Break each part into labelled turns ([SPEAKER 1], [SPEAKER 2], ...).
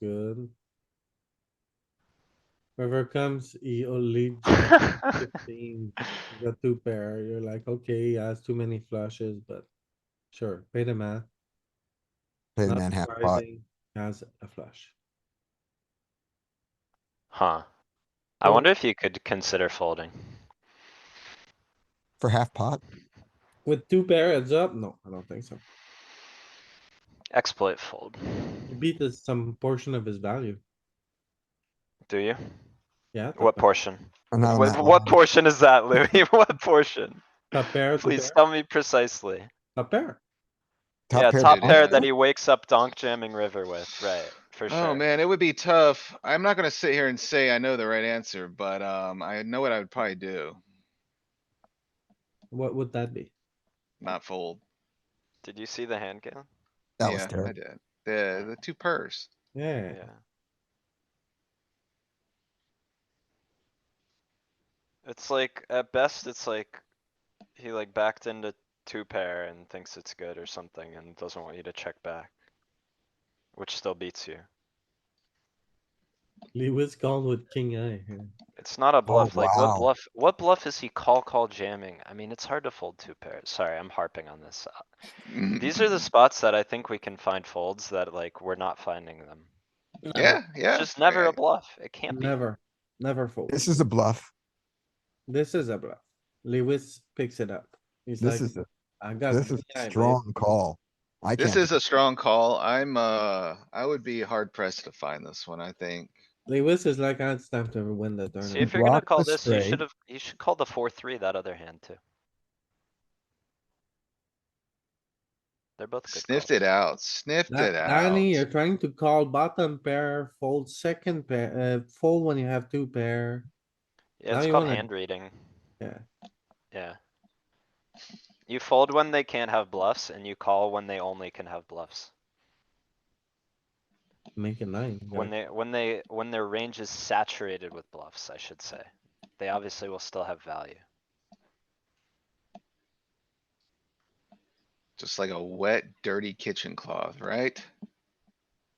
[SPEAKER 1] good. Whoever comes, he only fifteen, the two pair, you're like, okay, he has too many flushes, but sure, pay the man.
[SPEAKER 2] Play the man half pot.
[SPEAKER 1] Has a flush.
[SPEAKER 3] Huh. I
[SPEAKER 1] Well-
[SPEAKER 3] wonder if you could consider folding.
[SPEAKER 2] For half pot,
[SPEAKER 1] With two pair heads up? No, I don't think so.
[SPEAKER 3] Exploit fold.
[SPEAKER 1] He beat us some portion of his value,
[SPEAKER 3] Do you?
[SPEAKER 1] yeah. top
[SPEAKER 3] What
[SPEAKER 1] pair-
[SPEAKER 3] portion?
[SPEAKER 2] I'm not on
[SPEAKER 3] What,
[SPEAKER 2] that
[SPEAKER 3] what
[SPEAKER 2] line.
[SPEAKER 3] portion is that, Louis? What portion?
[SPEAKER 1] Top pair, two
[SPEAKER 3] Please
[SPEAKER 1] pair,
[SPEAKER 3] tell me precisely.
[SPEAKER 1] top pair.
[SPEAKER 3] Yeah, top
[SPEAKER 2] bottom
[SPEAKER 3] pair
[SPEAKER 2] line.
[SPEAKER 3] that he wakes up donk jamming river with, right, for sure.
[SPEAKER 4] Oh, man, it would be tough. I'm not gonna sit here and say I know the right answer, but, um, I know what I would probably do.
[SPEAKER 1] What would that be?
[SPEAKER 4] Not fold.
[SPEAKER 3] Did you see the hand game?
[SPEAKER 2] That was
[SPEAKER 4] Yeah, I
[SPEAKER 2] terrible.
[SPEAKER 4] did. The, the two pairs.
[SPEAKER 1] Yeah,
[SPEAKER 3] Yeah. It's like, at best, it's like, he like backed into two pair and thinks it's good or something and doesn't want you to check back. Which still beats you.
[SPEAKER 1] Lewis gone with king eye here.
[SPEAKER 3] It's not a bluff, like
[SPEAKER 2] wow.
[SPEAKER 3] what bluff, what bluff is he call, call jamming? I mean, it's hard to fold two pairs, sorry, I'm harping on this. Uh,
[SPEAKER 4] Mm-hmm.
[SPEAKER 3] These are the spots that I think we can find folds that like, we're not finding them.
[SPEAKER 4] Yeah, yeah.
[SPEAKER 3] It's just never
[SPEAKER 4] yeah.
[SPEAKER 3] a bluff, it can't be.
[SPEAKER 1] Never, never fold.
[SPEAKER 2] This is a bluff.
[SPEAKER 1] This is a bluff. Lewis picks it up. He's
[SPEAKER 2] This
[SPEAKER 1] like,
[SPEAKER 2] is, a-
[SPEAKER 1] I got.
[SPEAKER 2] this is
[SPEAKER 1] king eye,
[SPEAKER 2] a
[SPEAKER 1] babe."
[SPEAKER 2] strong call. I
[SPEAKER 4] This
[SPEAKER 2] can't,
[SPEAKER 4] is a strong call. I'm, uh, I would be hard pressed to find this one, I think.
[SPEAKER 1] Lewis is like, I'd stamp to win the
[SPEAKER 3] See, if
[SPEAKER 1] tournament.
[SPEAKER 3] you're gonna
[SPEAKER 2] Rock
[SPEAKER 3] call
[SPEAKER 2] the
[SPEAKER 3] this, you
[SPEAKER 2] straight.
[SPEAKER 3] should have, you should call the four, three, that other hand too. They're both good
[SPEAKER 4] Sniffed
[SPEAKER 3] calls.
[SPEAKER 4] it out, sniffed
[SPEAKER 1] Da-
[SPEAKER 4] it out.
[SPEAKER 1] Danny, you're trying to call bottom pair, fold second pair, uh, fold when you have two pair.
[SPEAKER 3] Yeah,
[SPEAKER 1] Now
[SPEAKER 3] it's
[SPEAKER 1] you
[SPEAKER 3] called
[SPEAKER 1] wanna-
[SPEAKER 3] hand reading.
[SPEAKER 1] Yeah.
[SPEAKER 3] Yeah. You fold when they can't have bluffs and you call when they only can have bluffs.
[SPEAKER 1] Make a nine. you
[SPEAKER 3] When
[SPEAKER 1] gotta-
[SPEAKER 3] they, when they, when their range is saturated with bluffs, I should say. They obviously will still have value.
[SPEAKER 4] Just like a wet, dirty kitchen cloth, right?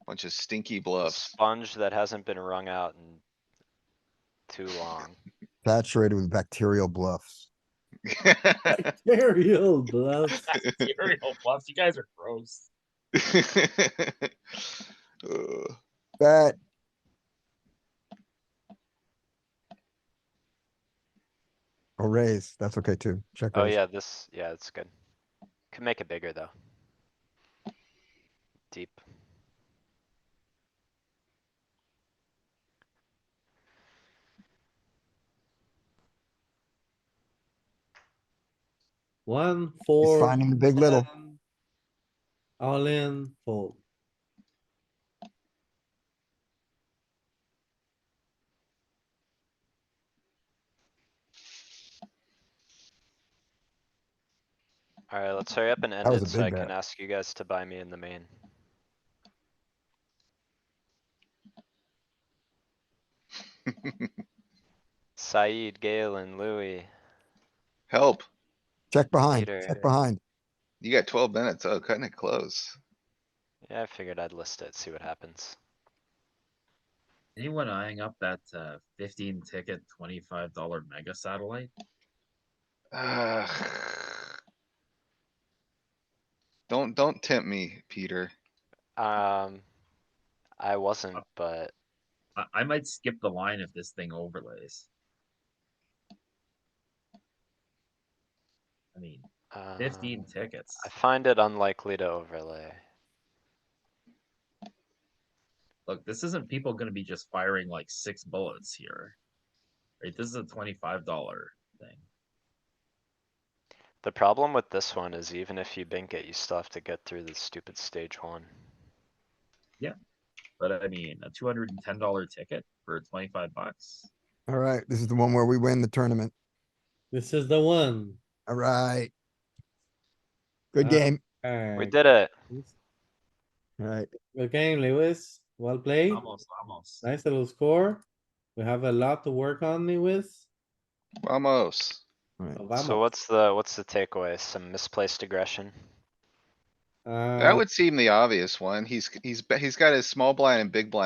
[SPEAKER 4] Bunch of stinky
[SPEAKER 3] A
[SPEAKER 4] bluffs.
[SPEAKER 3] sponge that hasn't been wrung out in too long.
[SPEAKER 2] saturated with bacterial bluffs.
[SPEAKER 1] Bacterial bluff.
[SPEAKER 5] Cereal bluffs. You guys are gross.
[SPEAKER 4] Ugh.
[SPEAKER 2] Bet, or raise, Oh, that's okay too. Check
[SPEAKER 3] Oh
[SPEAKER 2] raise.
[SPEAKER 3] yeah, this, yeah, it's good. Can make it bigger though. Deep.
[SPEAKER 1] One,
[SPEAKER 2] He's
[SPEAKER 1] four,
[SPEAKER 2] finding the big little.
[SPEAKER 1] seven. All in, fold.
[SPEAKER 3] Alright, let's hurry up and end
[SPEAKER 2] That was
[SPEAKER 3] it
[SPEAKER 2] a
[SPEAKER 3] so
[SPEAKER 2] big
[SPEAKER 3] I can
[SPEAKER 2] bet.
[SPEAKER 3] ask you guys to buy me in the main. Saeed, Galen, Louis,
[SPEAKER 4] Help.
[SPEAKER 2] Check behind,
[SPEAKER 3] Peter.
[SPEAKER 2] check behind.
[SPEAKER 4] You got twelve minutes. Oh, cutting it close.
[SPEAKER 3] yeah, I figured I'd list it, see what happens.
[SPEAKER 5] Anyone eyeing up that uh, 15 ticket, $25 mega satellite?
[SPEAKER 4] Ugh. Don't, don't tempt me, Peter.
[SPEAKER 3] Um, I wasn't, but
[SPEAKER 5] I, I might skip the line if this thing overlays. I mean,
[SPEAKER 3] uh,
[SPEAKER 5] 15 tickets.
[SPEAKER 3] I find it unlikely to overlay.
[SPEAKER 5] Look, this isn't people going to be just firing like six bullets here. Right? This is a $25 thing.
[SPEAKER 3] The problem with this one is even if you bink it, you still have to get through the stupid stage one.
[SPEAKER 5] But I mean, a $210 ticket for 25 bucks.
[SPEAKER 2] Alright, this is the one where we win the tournament.
[SPEAKER 1] This is the one.
[SPEAKER 2] Alright. Good
[SPEAKER 1] Uh,
[SPEAKER 2] game.
[SPEAKER 3] We
[SPEAKER 1] Alright,
[SPEAKER 3] did it.
[SPEAKER 2] Alright,
[SPEAKER 1] Good game, Lewis. Well played.
[SPEAKER 5] Almost, almost.
[SPEAKER 1] Nice little score. We have a lot to work on, Lewis.
[SPEAKER 4] Vamos.
[SPEAKER 2] alright.
[SPEAKER 3] So what's the, what's the takeaway? Some misplaced aggression?
[SPEAKER 1] Ah, Uh,
[SPEAKER 4] That would seem the obvious one. He's, he's, he's got his small blind and big blind